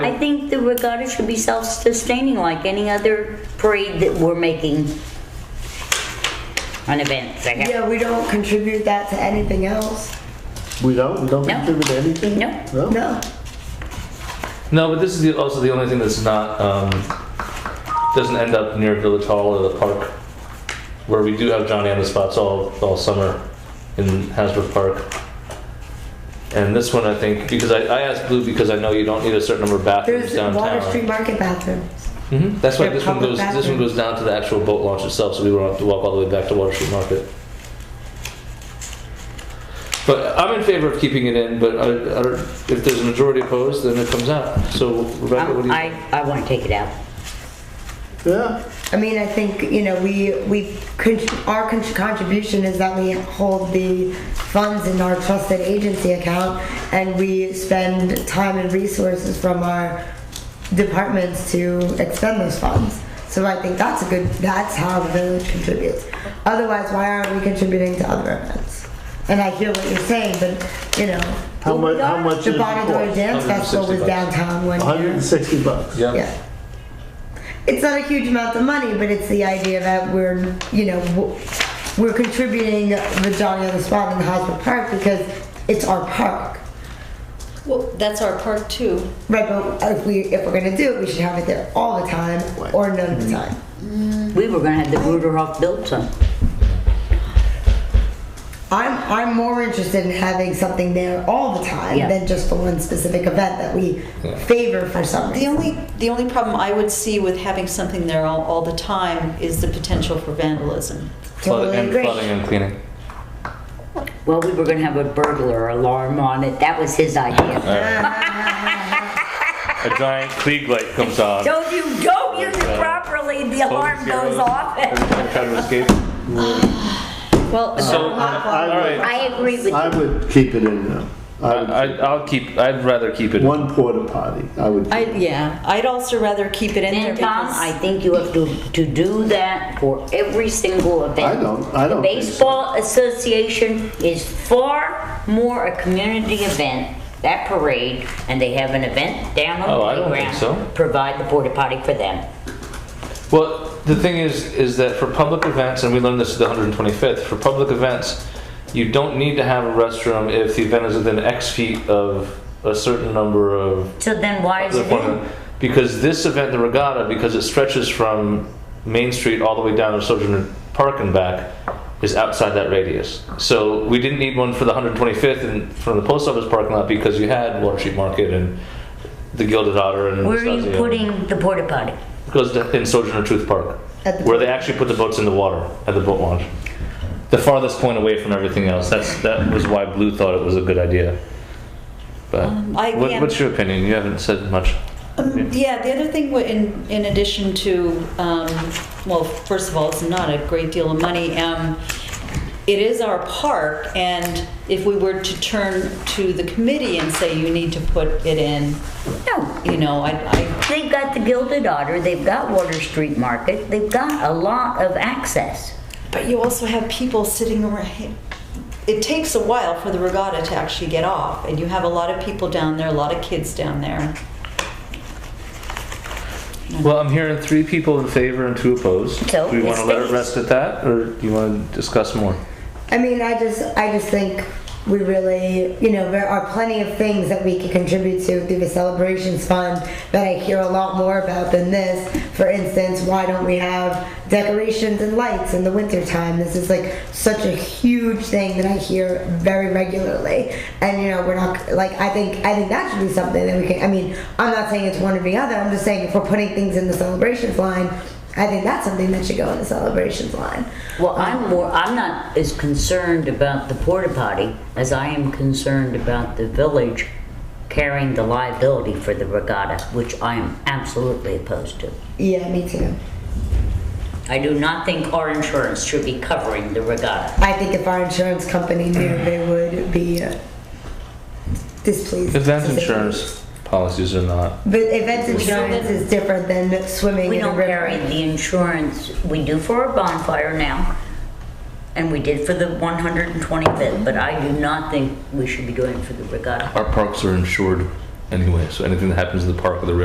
I think the regatta should be self-sustaining like any other parade that we're making. An event, I guess. Yeah, we don't contribute that to anything else. We don't, we don't No. contribute anything? No. No? No. No, but this is the, also the only thing that's not um, doesn't end up near Village Hall or the park, where we do have Johnny on the spots all all summer in Hasbrook Park. And this one, I think, because I, I asked Blue because I know you don't need a certain number of bathrooms There's downtown. Water Street Market bathrooms. hmm That's why They're this one public goes. This one goes down to the actual boat launch itself, so we won't have to walk all the way back to Water Street Market. But I'm in favor of keeping it in. But I, I don't, if there's a majority opposed, then it comes out. So Rebecca, what do Um, you? I, I want to take it out. Yeah, I mean, I think, you know, we, we, con- our con- contribution is that we hold the funds in our trusted agency account and we spend time and resources from our departments to expend those funds. So I think that's a good, that's how the village contributes. Otherwise, why aren't we contributing to other events? And I hear what you're saying, but, you know, how much, how much the is it Bonadilla cost? Dance Festival was 160 bucks. downtown one Hundred and year. sixty bucks. Yeah. Yeah. It's not a huge amount of money, but it's the idea that we're, you know, w- we're contributing the Johnny on the Spot in the Hosmer Park because it's our park. Well, that's our park too. Right, but if we, if we're gonna do it, we should have it there all the time or none of the time. We were gonna have the Ruderhoff built some. I'm, I'm more interested in having something there all the time Yeah. than just for one specific event that we favor for some The reason. only, the only problem I would see with having something there all, all the time is the potential for vandalism. Totally and agree. flooding and cleaning. Well, we were gonna have a burglar alarm on it. That was his idea. A giant Klieg light comes on. So if you don't use it properly, the alarm goes off. Everyone try to escape. Well, So, I- all right. I agree with I you. would keep it in now. I, I would, I, I'll keep. I'd rather keep it. one porta potty, I would. I, yeah, I'd also rather keep it in there And Tom, because I think you have to, to do that for every single event. I don't- I don't The think so. Baseball Association is far more a community event, that parade, and they have an event down on Oh, I the don't playground. think so. Provide the porta potty for them. Well, the thing is, is that for public events, and we learned this at the 125th, for public events, you don't need to have a restroom if the event is within X feet of a certain number of. So then why is the it in? appointment. Because this event, the regatta, because it stretches from Main Street all the way down to Sojourner Park and back, is outside that radius. So we didn't need one for the 125th and from the post office parking lot because you had Water Street Market and the Gilded Otter and Where are you Anastasio. putting the porta potty? Goes to, in Sojourner Truth Park, At the- where they actually put the boats in the water at the boat launch. The farthest point away from everything else. That's that was why Blue thought it was a good idea. But I what, am- what's your opinion? You haven't said much. Um, Yeah, the other thing, wa- in, in addition to, um, well, first of all, it's not a great deal of money. Um, It is our park, and if we were to turn to the committee and say, you need to put it in, No, you know, I, I, they've got the Gilded Otter, they've got Water Street Market, they've got a lot of access. but you also have people sitting around. It takes a while for the regatta to actually get off, and you have a lot of people down there, a lot of kids down there. Well, I'm hearing three people in favor and two opposed. So, Do we want to it's let it fixed. rest at that, or do you want to discuss more? I mean, I just, I just think we really, you know, there are plenty of things that we can contribute to through the celebrations fund that I hear a lot more about than this. For instance, why don't we have decorations and lights in the wintertime? This is like such a huge thing that I hear very regularly. And you know, we're not like I think I think that should be something that we can. I mean, I'm not saying it's one or the other. I'm just saying if we're putting things in the celebrations line, I think that's something that should go in the celebrations line. Well, I'm more, I'm not as concerned about the porta potty as I am concerned about the village carrying the liability for the regatta, which I am absolutely opposed to. Yeah, me too. I do not think our insurance should be covering the regatta. I think if our insurance company knew, they would be uh, displeased. Event insurance policies are not. But event insurance is different than swimming We in a don't carry river. the insurance, we do for a bonfire now, and we did for the 125th, but I do not think we should be doing it for the regatta. Our parks are insured. anyway. So anything that happens in the park or the